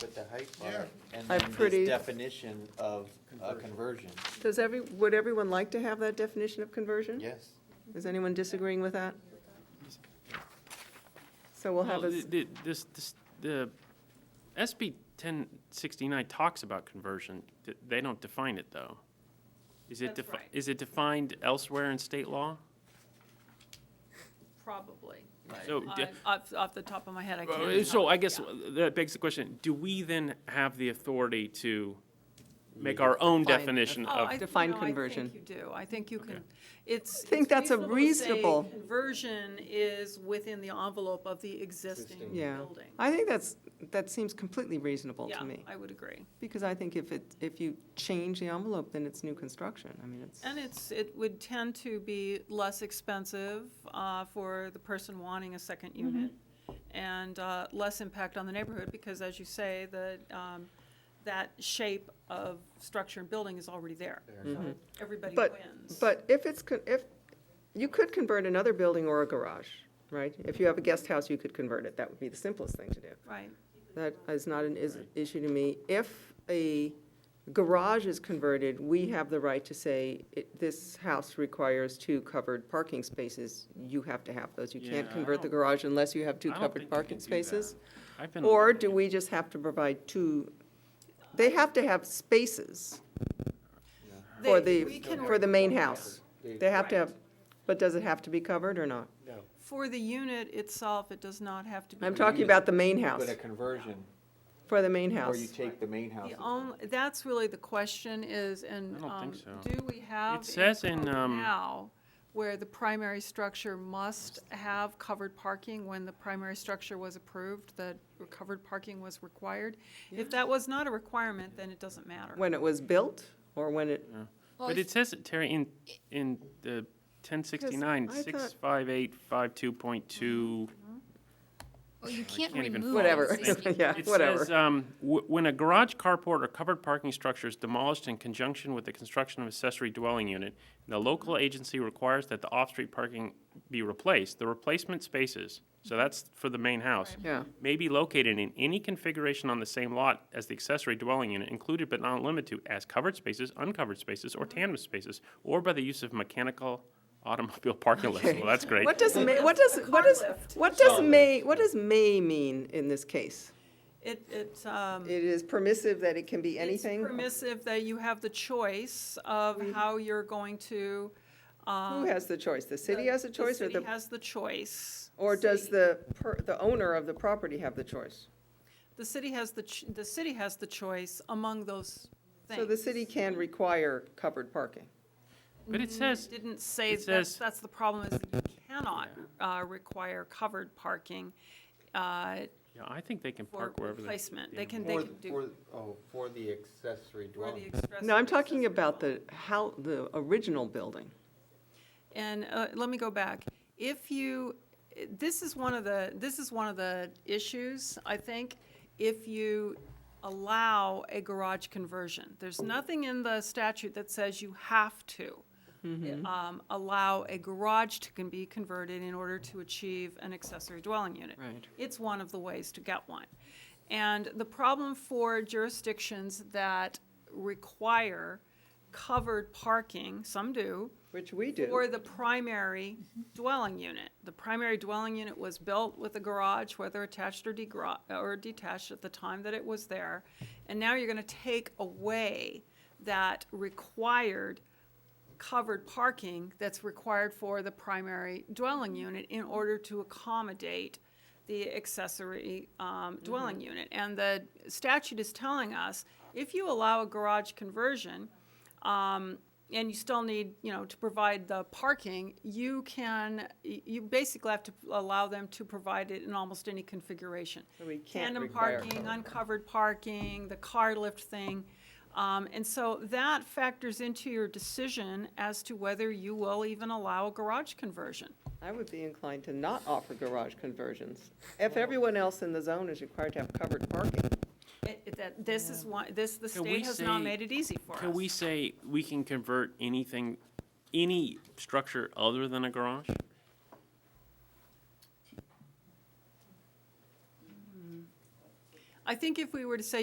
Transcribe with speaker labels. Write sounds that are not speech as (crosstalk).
Speaker 1: But the height
Speaker 2: Yeah.
Speaker 1: bar and
Speaker 3: I
Speaker 1: then
Speaker 3: pretty-
Speaker 1: this definition of a conversion,
Speaker 3: Does every, would everyone like to have that definition of conversion?
Speaker 1: yes.
Speaker 3: Is anyone disagreeing with that? So we'll have
Speaker 4: Well,
Speaker 3: a,
Speaker 4: the- the- This, this, the SB 1069 talks about conversion. Th- They don't define it, though. Is it,
Speaker 5: That's
Speaker 4: defi-
Speaker 5: right.
Speaker 4: is it defined elsewhere in state law?
Speaker 5: Probably.
Speaker 4: So,
Speaker 5: Uh,
Speaker 4: d-
Speaker 5: Off, off the top of my head, I
Speaker 4: Uh,
Speaker 5: can't.
Speaker 4: So I guess
Speaker 5: yeah.
Speaker 4: that begs the question, do we then have the authority to make our own
Speaker 3: Define.
Speaker 4: definition
Speaker 5: Oh,
Speaker 4: of?
Speaker 5: I-
Speaker 3: Define
Speaker 5: no,
Speaker 3: conversion.
Speaker 5: I think you do. I think you can, it's.
Speaker 3: think
Speaker 5: it's
Speaker 3: that's a
Speaker 5: to
Speaker 3: reasonable-
Speaker 5: say Conversion is within the envelope of the existing
Speaker 1: Existing.
Speaker 3: yeah.
Speaker 5: building.
Speaker 3: I think that's, that seems completely reasonable to me.
Speaker 5: Yeah, I would agree.
Speaker 3: Because I think if it, if you change the envelope, then it's new construction. I mean, it's,
Speaker 5: And it's, it would tend to be less expensive uh, for the person wanting a second
Speaker 3: Mm-hmm.
Speaker 5: unit and uh, less impact on the neighborhood because, as you say, the, um, that shape of structure and building is already there. So Everybody
Speaker 3: But-
Speaker 5: wins.
Speaker 3: but if it's, con- if, you could convert another building or a garage, right? If you have a guest house, you could convert it. That would be the simplest thing to do.
Speaker 5: Right,
Speaker 3: That is not an is- issue to me. If a garage is converted, we have the right to say, it- this house requires two covered parking spaces. You have to have those. You
Speaker 4: Yeah,
Speaker 3: can't
Speaker 4: I
Speaker 3: convert the
Speaker 4: don't-
Speaker 3: garage unless you have
Speaker 4: I
Speaker 3: two
Speaker 4: don't
Speaker 3: covered
Speaker 4: think we can
Speaker 3: parking
Speaker 4: do that.
Speaker 3: spaces.
Speaker 4: I've been-
Speaker 3: Or do we just have to provide two, they have to have spaces for
Speaker 5: They-
Speaker 3: the,
Speaker 5: we can
Speaker 3: for the main house.
Speaker 1: They-
Speaker 3: They have to have, but does it have to be covered or not?
Speaker 1: No.
Speaker 5: for the unit itself, it does not have to be.
Speaker 3: I'm talking about the main house,
Speaker 1: But a conversion,
Speaker 3: for the main
Speaker 1: or you
Speaker 3: house.
Speaker 1: take the main house.
Speaker 5: The only, that's really the question is, and
Speaker 4: I don't
Speaker 5: um,
Speaker 4: think so.
Speaker 5: do we have?
Speaker 4: It says in,
Speaker 5: code
Speaker 4: um,
Speaker 5: Now, where the primary structure must have covered parking when the primary structure was approved, that covered parking was required. If that was not a requirement, then it doesn't matter.
Speaker 3: When it was built or when it
Speaker 4: But it says, it, Terry, in, in the 1069,
Speaker 3: Because I thought-
Speaker 4: 65852.2.
Speaker 6: Well, you can't
Speaker 4: can't
Speaker 6: remove.
Speaker 4: even follow
Speaker 3: Whatever, (laughs)
Speaker 4: this thing.
Speaker 6: existing-
Speaker 3: yeah,
Speaker 4: It
Speaker 3: whatever.
Speaker 4: says, um, "Wh- when a garage, carport, or covered parking structure is demolished in conjunction with the construction of accessory dwelling unit, and the local agency requires that the off-street parking be replaced, the replacement spaces, so that's for the main house,
Speaker 3: Yeah,
Speaker 4: may be located in any configuration on the same lot as the accessory dwelling unit, included but not limited to as covered spaces, uncovered spaces,
Speaker 5: Mm-hmm.
Speaker 4: or tandem spaces, or by the use of mechanical automobile parking lifts. Well, that's great.
Speaker 3: what does may, what does, what does, what does may, what does may mean in this case?
Speaker 5: It, it, um.
Speaker 3: It is permissive that it can be anything? Mm-hmm.
Speaker 5: It's permissive that you have the choice of how you're going to, um.
Speaker 3: Who has the choice? The city has a choice or
Speaker 5: city
Speaker 3: the,
Speaker 5: has the choice.
Speaker 3: or does
Speaker 5: City-
Speaker 3: the, per- the owner of the property have the choice?
Speaker 5: The city has the, ch- the city has the choice among those things.
Speaker 3: So the city can require covered parking.
Speaker 4: But it says,
Speaker 5: Didn't say,
Speaker 4: it
Speaker 5: that's,
Speaker 4: says-
Speaker 5: that's the problem, is you cannot uh, require covered parking uh,
Speaker 4: yeah, I think they can
Speaker 5: for
Speaker 4: park wherever they.
Speaker 5: replacement. They
Speaker 4: damn
Speaker 5: can, they
Speaker 1: For,
Speaker 5: can do.
Speaker 1: for, oh, for the accessory
Speaker 5: for the
Speaker 1: dwelling.
Speaker 5: express-
Speaker 3: No, I'm talking about the, how, the original building.
Speaker 5: And uh, let me go back. If you, this is one of the, this is one of the issues, I think, if you allow a garage conversion. There's nothing in the statute that says you have to um, allow a garage to can be converted in order to achieve an accessory dwelling unit.
Speaker 3: Right.
Speaker 5: It's one of the ways to get one. And the problem for jurisdictions that require covered parking, some do,
Speaker 3: Which we
Speaker 5: or
Speaker 3: do.
Speaker 5: the primary dwelling unit. The primary dwelling unit was built with a garage, whether attached or degra- or detached at the time that it was there. And now you're gonna take away that required covered parking that's required for the primary dwelling unit in order to accommodate the accessory um, dwelling unit. And the statute is telling us, if you allow a garage conversion, um, and you still need, you know, to provide the parking, you can, y- you basically have to allow them to provide it in almost any configuration.
Speaker 3: So we can't
Speaker 5: Tandem
Speaker 3: require
Speaker 5: parking,
Speaker 3: covered.
Speaker 5: uncovered parking, the car lift thing. Um, and so that factors into your decision as to whether you will even allow a garage conversion.
Speaker 3: I would be inclined to not offer garage conversions. If everyone else in the zone is required to have covered parking.
Speaker 5: It- it- that, this is one, this, the
Speaker 4: Can we
Speaker 5: state has not
Speaker 4: say-
Speaker 5: made it easy for us.
Speaker 4: Can we say we can convert anything, any structure other than a garage?
Speaker 5: I think if we were to say